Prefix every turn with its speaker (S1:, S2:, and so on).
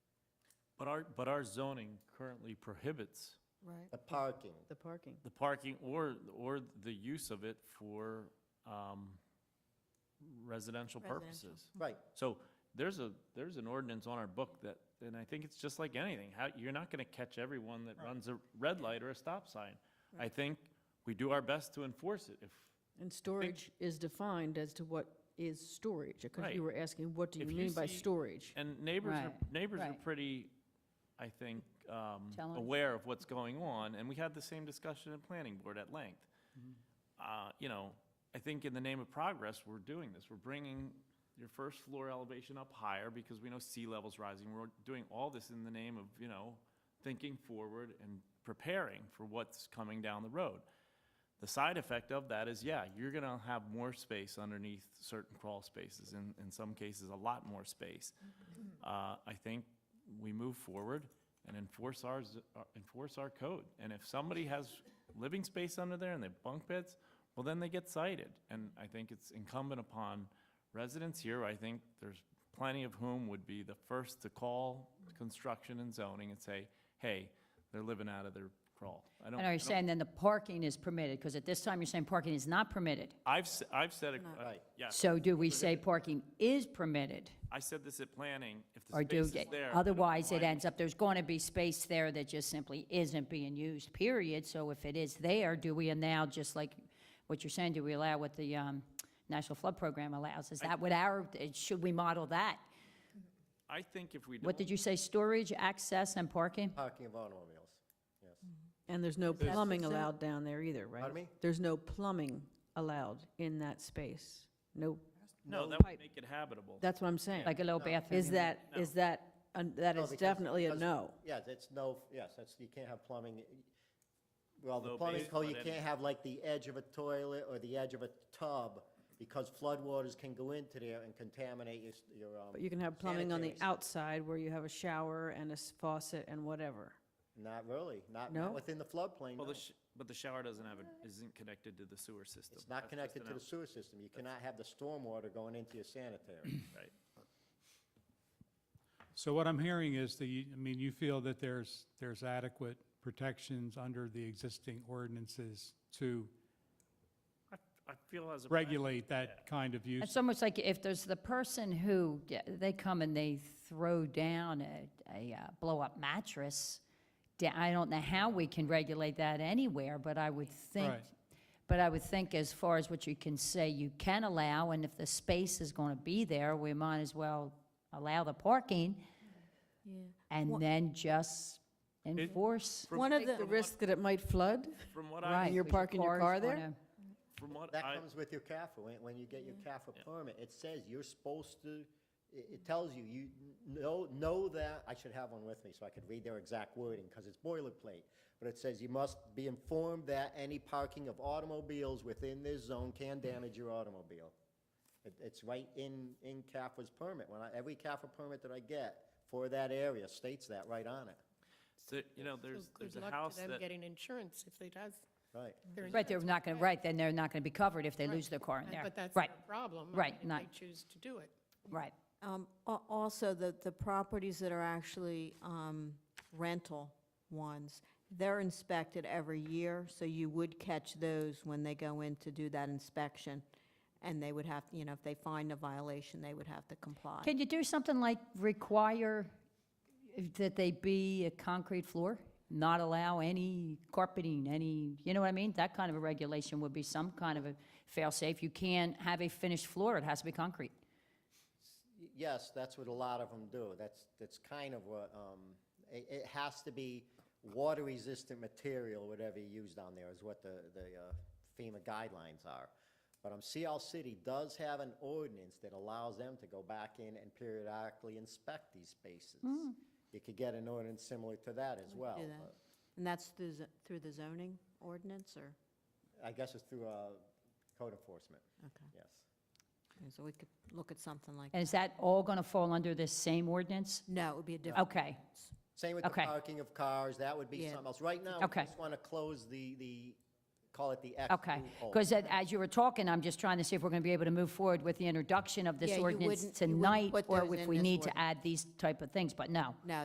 S1: But our, but our zoning currently prohibits
S2: Right,
S3: the parking.
S2: the parking.
S1: the parking or, or the use of it for um, residential
S2: Residential.
S1: purposes.
S3: Right,
S1: So there's a, there's an ordinance on our book that, and I think it's just like anything, how, you're not gonna catch everyone that runs a red light or a stop sign. I think we do our best to enforce it. If,
S2: And storage is defined as to what is storage, because
S1: Right.
S2: you were asking, what do you
S1: If you
S2: mean by
S1: see-
S2: storage?
S1: and neighbors are,
S4: Right,
S1: neighbors are
S4: right.
S1: pretty, I think, um,
S4: Challenged.
S1: aware of what's going on, and we had the same discussion at planning board at length. Uh, you know, I think in the name of progress, we're doing this. We're bringing your first floor elevation up higher because we know sea level's rising. We're doing all this in the name of, you know, thinking forward and preparing for what's coming down the road. The side effect of that is, yeah, you're gonna have more space underneath certain crawl spaces, in, in some cases, a lot more space. Uh, I think we move forward and enforce ours, uh, enforce our code. And if somebody has living space under there and they have bunk beds, well, then they get cited. And I think it's incumbent upon residents here, I think there's plenty of whom would be the first to call construction and zoning and say, hey, they're living out of their crawl. I don't-
S4: And are
S1: I
S4: you
S1: don't-
S4: saying then the parking is permitted? Because at this time, you're saying parking is not permitted.
S1: I've, s- I've said, it- uh,
S3: Right.
S1: yeah,
S4: So do we say parking is permitted?
S1: I said this at planning, if the
S4: Or do,
S1: space is there. I don't know
S4: otherwise it
S1: why-
S4: ends up, there's going to be space there that just simply isn't being used, period. So if it is there, do we now, just like what you're saying, do we allow what the um, National Flood Program allows? Is that what our, should we model that?
S1: I think if we don't.
S4: What did you say, storage, access, and parking?
S1: Uh,
S3: parking of automobiles, yes.
S5: And there's no plumbing
S2: That's-
S5: allowed down there either, right?
S3: Pardon me?
S5: There's no plumbing allowed in that space. No,
S1: No,
S5: No
S1: that would
S5: pipe.
S1: make it habitable.
S5: that's what I'm saying.
S4: Like a little bathroom?
S5: Is
S4: you mean?
S5: that, is that, un- that
S3: No,
S5: is
S3: Oh, because-
S5: definitely a
S3: because-
S5: no.
S3: Yeah, that's no, yes, that's, you can't have plumbing. Well, the
S1: No
S3: plumbing
S1: basement
S3: code, you
S1: in.
S3: can't have like the edge of a toilet or the edge of a tub, because floodwaters can go into there and contaminate your, s- your, um.
S5: But you can have plumbing on the
S3: sanitary s-
S5: outside where you have a shower and a s- faucet and whatever.
S3: Not really, not,
S5: No?
S3: not within the floodplain,
S1: Well,
S3: no.
S1: the, sh- but the shower doesn't have, a- isn't connected to the sewer system.
S3: It's
S1: That's just
S3: not connected
S1: an
S3: to the
S1: out-
S3: sewer system. You cannot have the stormwater going into your sanitary.
S1: Right.
S6: So what I'm hearing is that you, I mean, you feel that there's, there's adequate protections under the existing ordinances to
S1: I, I feel as a.
S6: regulate that kind of use.
S4: It's almost like if there's the person who, yeah, they come and they throw down a, a uh, blow-up mattress, da- I don't know how we can regulate that anywhere, but I would think,
S6: Right.
S4: but I would think as far as what you can say you can allow, and if the space is going to be there, we might as well allow the parking
S2: Yeah.
S4: and then just enforce.
S5: One of the. risk that it might flood?
S1: From what I,
S4: Right,
S5: you're
S4: with
S5: parking your
S4: cars
S5: car
S4: on
S5: there?
S1: from what
S3: That
S1: I,
S3: comes with your CAFA. When, when you get your CAFA permit, it says you're supposed to, it, it tells you, you know, know that, I should have one with me so I could read their exact wording, because it's boilerplate. But it says you must be informed that any parking of automobiles within this zone can damage your automobile. It, it's right in, in CAFA's permit. When I, every CAFA permit that I get for that area states that right on it,
S1: there- you know,
S7: So
S1: there's,
S7: good
S1: there's a
S7: luck to
S1: house
S7: them
S1: that,
S7: Getting insurance if they does.
S3: right?
S7: their
S4: Right, they're
S7: insurance.
S4: not going to, right, then they're not going to be covered if they lose their car in
S7: Right,
S4: there.
S7: But that's
S4: Right,
S7: their problem. I
S4: right,
S7: mean,
S4: not-
S7: If they choose to do it.
S4: right.
S2: Um, al- Also, the, the properties that are actually um, rental ones, they're inspected every year, so you would catch those when they go in to do that inspection. And they would have, you know, if they find a violation, they would have to comply.
S4: Can you do something like require that they be a concrete floor? Not allow any carpeting, any, you know what I mean? That kind of a regulation would be some kind of a fail-safe. You can't have a finished floor, it has to be concrete.
S3: Y- Yes, that's what a lot of them do. That's, that's kind of what, um, it, it has to be water-resistant material, whatever you use down there is what the, the uh, FEMA guidelines are. But um, CL City does have an ordinance that allows them to go back in and periodically inspect these spaces. You could get an ordinance similar to that as well.
S2: Hmm. Do that.
S3: but
S2: And that's through, zo- through the zoning ordinance, or?
S3: I guess it's through, uh, code enforcement,
S2: Okay,
S3: yes.
S2: so we could look at something like,
S4: And is that all going to fall under this same ordinance?
S2: no, it would be a different.
S4: Okay,
S3: Same with the
S4: Okay.
S3: parking of cars, that would be
S2: Yeah.
S3: something else. Right now, we
S4: Okay.
S3: just want to close the, the, call it the X
S4: okay.
S3: loophole.
S4: Because as you were talking, I'm just trying to see if we're going to be able to move forward with the introduction of this
S2: Yeah, you
S4: ordinance
S2: wouldn't- you wouldn't
S4: tonight,
S2: put
S4: or
S2: those
S4: if
S2: in
S4: we
S2: this
S4: need to
S2: ordinance.
S4: add these type of things, but no.
S2: No,